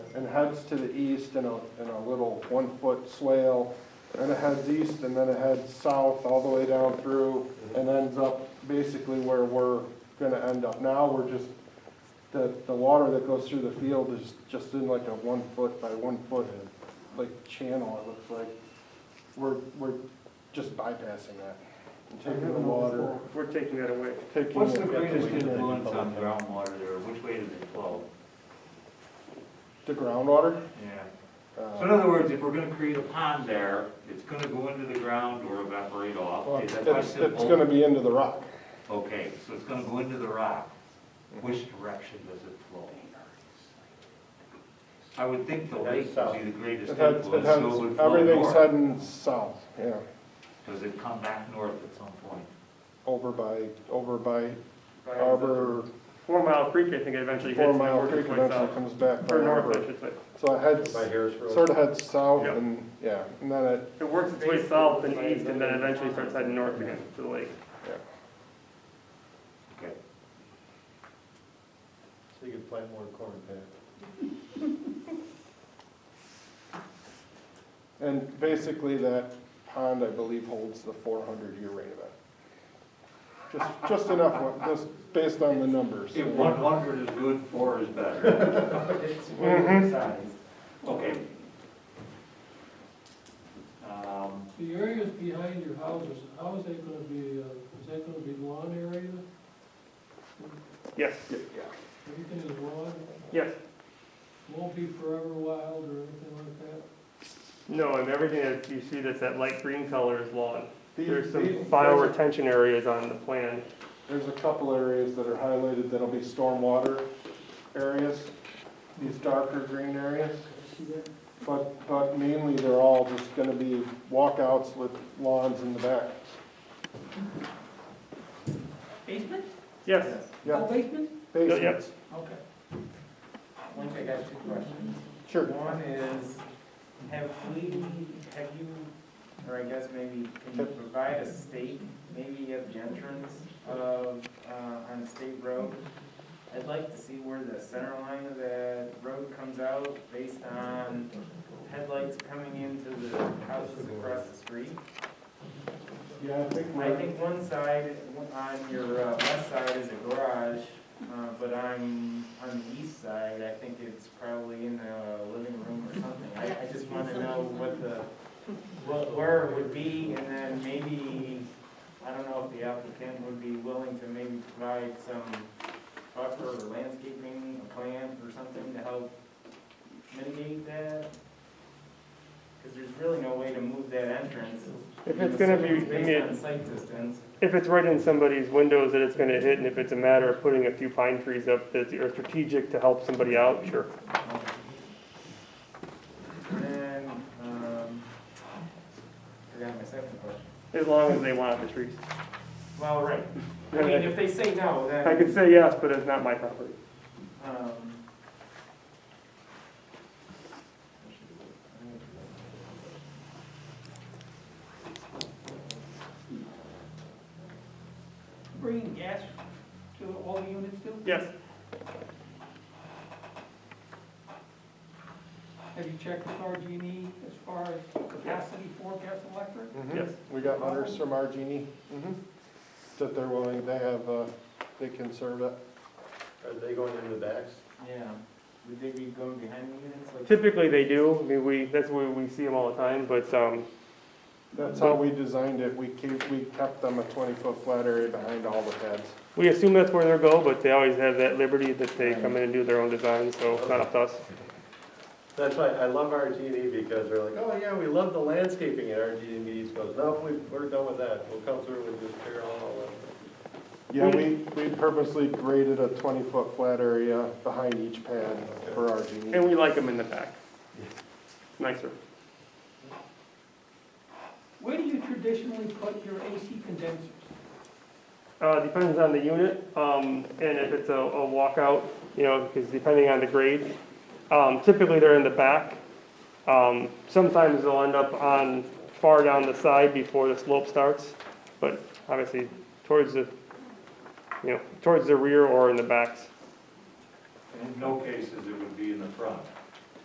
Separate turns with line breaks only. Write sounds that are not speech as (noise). and heads to the east in a, in a little one-foot swale. And it heads east and then it heads south all the way down through and ends up basically where we're gonna end up now. We're just, the, the water that goes through the field is just in like a one-foot by one-foot, like channel, it looks like. We're, we're just bypassing that and taking the water,
We're taking that away.
taking.
What's the
it-
greatest
taking it-
influence on groundwater there, which way does it flow?
The groundwater?
Yeah. So in
uh,
other words, if we're gonna create a pond there, it's gonna go into the ground or evaporate off, is that my
It's, it's
simple?
gonna be into the rock.
Okay, so it's gonna go into the rock, which direction does it flow? I would think the lake would be the greatest
It heads, it
influence, so it would
heads,
flow
everything's
north.
heading south, yeah,
Does it come back north at some point?
over by, over by Arbor,
Four Mile Creek, I think it eventually hits.
Four
and
Mile
works
Creek
its way
eventually
south.
comes back by
Or north, I
Arbor.
should say.
So it heads,
By Harris Road.
sort of heads south
Yep.
and, yeah, and then it,
It works its way south and east and then eventually starts heading north again to the lake.
Okay,
So you can plant more corn there.
and basically that pond, I believe, holds the four hundred year rain event. Just, just enough, wa- just based on the numbers.
if one hundred is good, four is better.
(laughs) It's way size.
Okay. Um,
The areas behind your houses, how is that gonna be, uh, is that gonna be lawn area?
Yes,
Everything is lawn,
yes.
won't be forever wild or anything like that?
No, and everything that you see that's that light green color is lawn.
These-
There's some
these- there's a-
bioretention areas on the plan.
There's a couple areas that are highlighted that'll be stormwater areas, these darker green areas.
See that?
But, but mainly they're all just gonna be walkouts with lawns in the back.
Basement?
Yes,
Yeah,
Oh, basement?
basements,
Okay. One, I got two questions.
sure.
One is, have we, have you, or I guess maybe, can you provide a state, maybe of entrance of, uh, on State Road? I'd like to see where the center line of the road comes out based on headlights coming into the houses across the street.
Yeah, I think
I think one side, on your uh, west side is a garage, uh, but on, on the east side, I think it's probably in the living room or something. I, I just want to know what the, what, where it would be, and then maybe, I don't know if the applicant would be willing to maybe provide some buffer or landscaping, a plant or something to help mitigate that? Because there's really no way to move that entrance.
If it's gonna be-
Based on site distance.
if it's right in somebody's windows that it's gonna hit, and if it's a matter of putting a few pine trees up that are strategic to help somebody out, sure.
And, um, forgot my second question.
As long as they want the trees.
Well, right, I mean, if they say no, then.
I could say yes, but it's not my property.
Um,
Bringing gas to all the units too?
Yes,
Have you checked with RG&E as far as capacity for gas and electric?
Mhm.
Yes.
We got letters from Argini, mhm, that they're willing, they have, uh, they can serve it.
Are they going in the backs?
Yeah, would they be going behind the units like?
typically they do, I mean, we, that's where we see them all the time, but, um,
That's how we designed it, we keep, we kept them a twenty-foot flat area behind all the heads.
we assume that's where they'll go, but they always have that liberty that they come in and do their own design, so it's not up to us.
That's why I love RGD because they're like, oh yeah, we love the landscaping at RGD East goes, no, we, we're done with that. We'll come through with this parallel.
Yeah, we, we purposely graded a twenty-foot flat area behind each pad for Argini.
And we like them in the back. Nicer.
Where do you traditionally put your AC condensers?
Uh, depends on the unit, um, and if it's a, a walkout, you know, because depending on the grade, um, typically they're in the back. Um, sometimes they'll end up on, far down the side before the slope starts, but obviously towards the, you know, towards the rear or in the backs.
In no cases, it would be in the front.